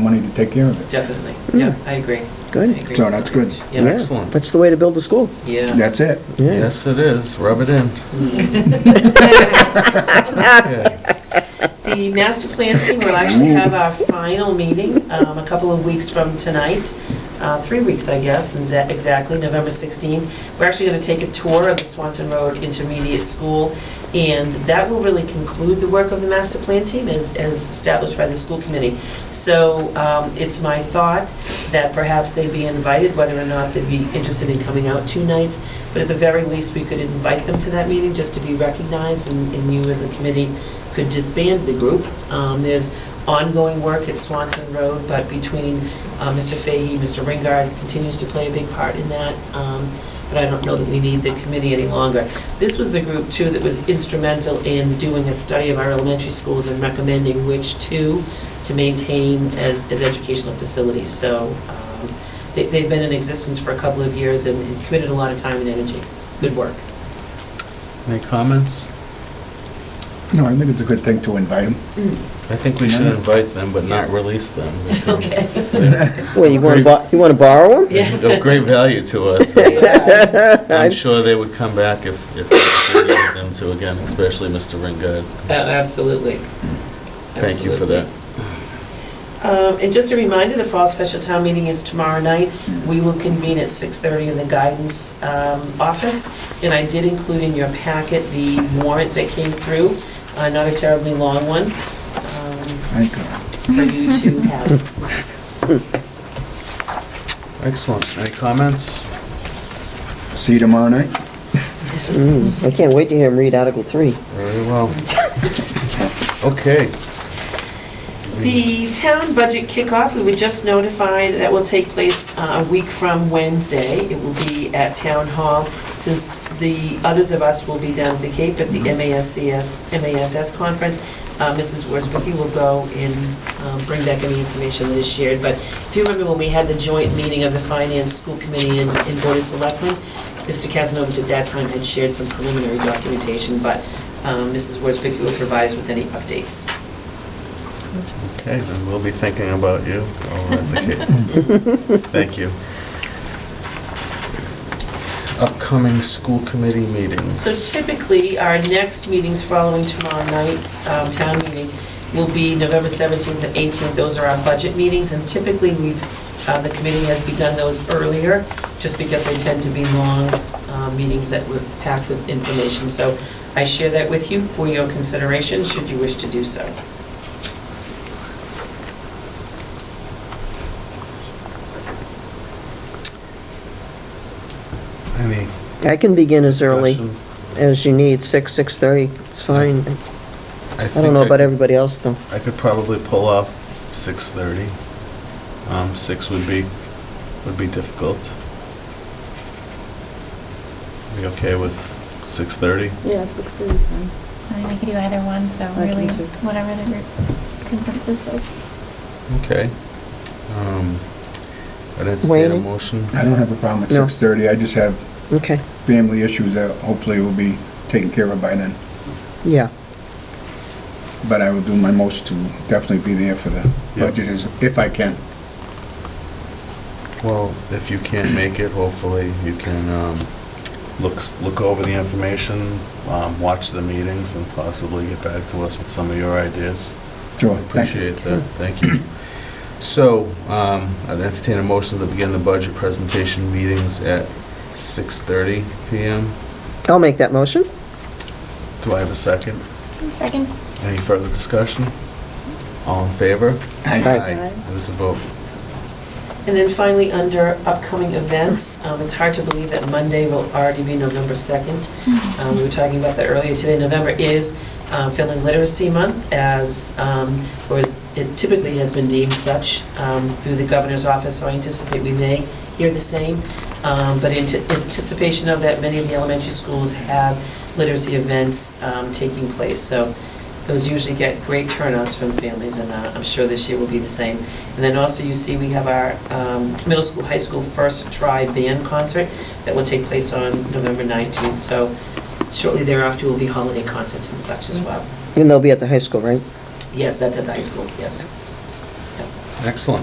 money to take care of it. Definitely, yeah, I agree. Good. I agree So with that's that. good. Yeah. Yeah, Excellent. That's the way to build a school. Yeah. That's it. Yeah. Yes, it is. Rub it in. Yeah. The master plan team will actually have our final meeting um, a couple of weeks from tonight, uh, three weeks, I guess, and za- exactly, November 16th. We're actually going to take a tour of the Swanson Road Intermediate School, and that will really conclude the work of the master plan team as as established by the school committee. So um, it's my thought that perhaps they'd be invited, whether or not they'd be interested in coming out two nights, but at the very least, we could invite them to that meeting just to be recognized, and and you as a committee could disband the group. Um, There's ongoing work at Swanson Road, but between uh, Mr. Fahey, Mr. Ringard continues to play a big part in that, Um, but I don't know that we need the committee any longer. This was the group, too, that was instrumental in doing a study of our elementary schools and recommending which two to maintain as, as educational facilities. So um, they- they've been in existence for a couple of years and and committed a lot of time and energy. Good work. Any comments? No, I think it's a good thing to invite them. I think we should invite them, but not release them. because they're- Well, you want to Great. bo- you want to borrow them? Yeah. They're of great value to us. I'm sure they would come back if, if we needed them to again, especially Mr. Ringard. Oh, Absolutely. Thank you for that. Um, And just a reminder, the fall special town meeting is tomorrow night. We will convene at 6:30 in the guidance um, office. And I did include in your packet the warrant that came through, uh, not a terribly long one, um, Thank you. for you to have. Excellent. Any comments? See you tomorrow night? Mm, I can't wait to hear him read Article 3. Very well. Okay. The town budget kickoff, we were just notified, that will take place uh, a week from Wednesday. It will be at Town Hall, since the others of us will be down at the Cape at the MASCS, MASS conference. uh, Mrs. Worsbicky will go and um, bring back any information that is shared. But if you remember when we had the joint meeting of the Finance School Committee and and Board of Selectmen, Mr. Kazanovich at that time had shared some preliminary documentation, but um, Mrs. Worsbicky will provide us with any updates. Okay, then we'll be thinking about you over at the Cape. Thank you. Upcoming school committee meetings. So typically, our next meetings following tomorrow night's um, town meeting will be November 17th and 18th. Those are our budget meetings, and typically, we've, uh, the committee has begun those earlier, just because they tend to be long uh, meetings that were packed with information. So I share that with you for your consideration, should you wish to do so. Any I can begin as early discussion? as you need, 6, 6:30. It's fine. I think don't know could- about everybody else, though. I could probably pull off 6:30. Um, 6 would be, would be difficult. Be okay with 6:30? Yeah, six thirty is fine. I mean, we could do either one, so I can really, too. whatever the group consensus is. Okay. Um, I'd entertain a Wayne? motion. I don't have a problem at No. 6:30. I just have Okay, family issues that hopefully will be taken care of by then. yeah. But I will do my most to definitely be there for the Yeah. budget is- if I can. Well, if you can't make it, hopefully you can um, look, s- look over the information, um, watch the meetings, and possibly get back to us with some of your ideas. Sure. thank you. Appreciate that, thank you. So, um, I'd entertain a motion to begin the budget presentation meetings at 6:30 PM. I'll make that motion. Do I have a second? Second? Any further discussion? All in favor? Aye. It is a vote. And then finally, under upcoming events, um, it's hard to believe that Monday will already be November 2nd. Um, We were talking about that earlier today. November is uh, Family Literacy Month, as, um, or as it typically has been deemed such um, through the governor's office, so I anticipate we may hear the same. Um, But in t- anticipation of that, many of the elementary schools have literacy events um, taking place. So those usually get great turnouts from families, and uh, I'm sure this year will be the same. And then also, you see, we have our um, middle school, high school first try band concert that will take place on November 19th. So shortly thereafter will be holiday concerts and such as well. And they'll be at the high school, right? Yes, that's at the high school, yes. Excellent.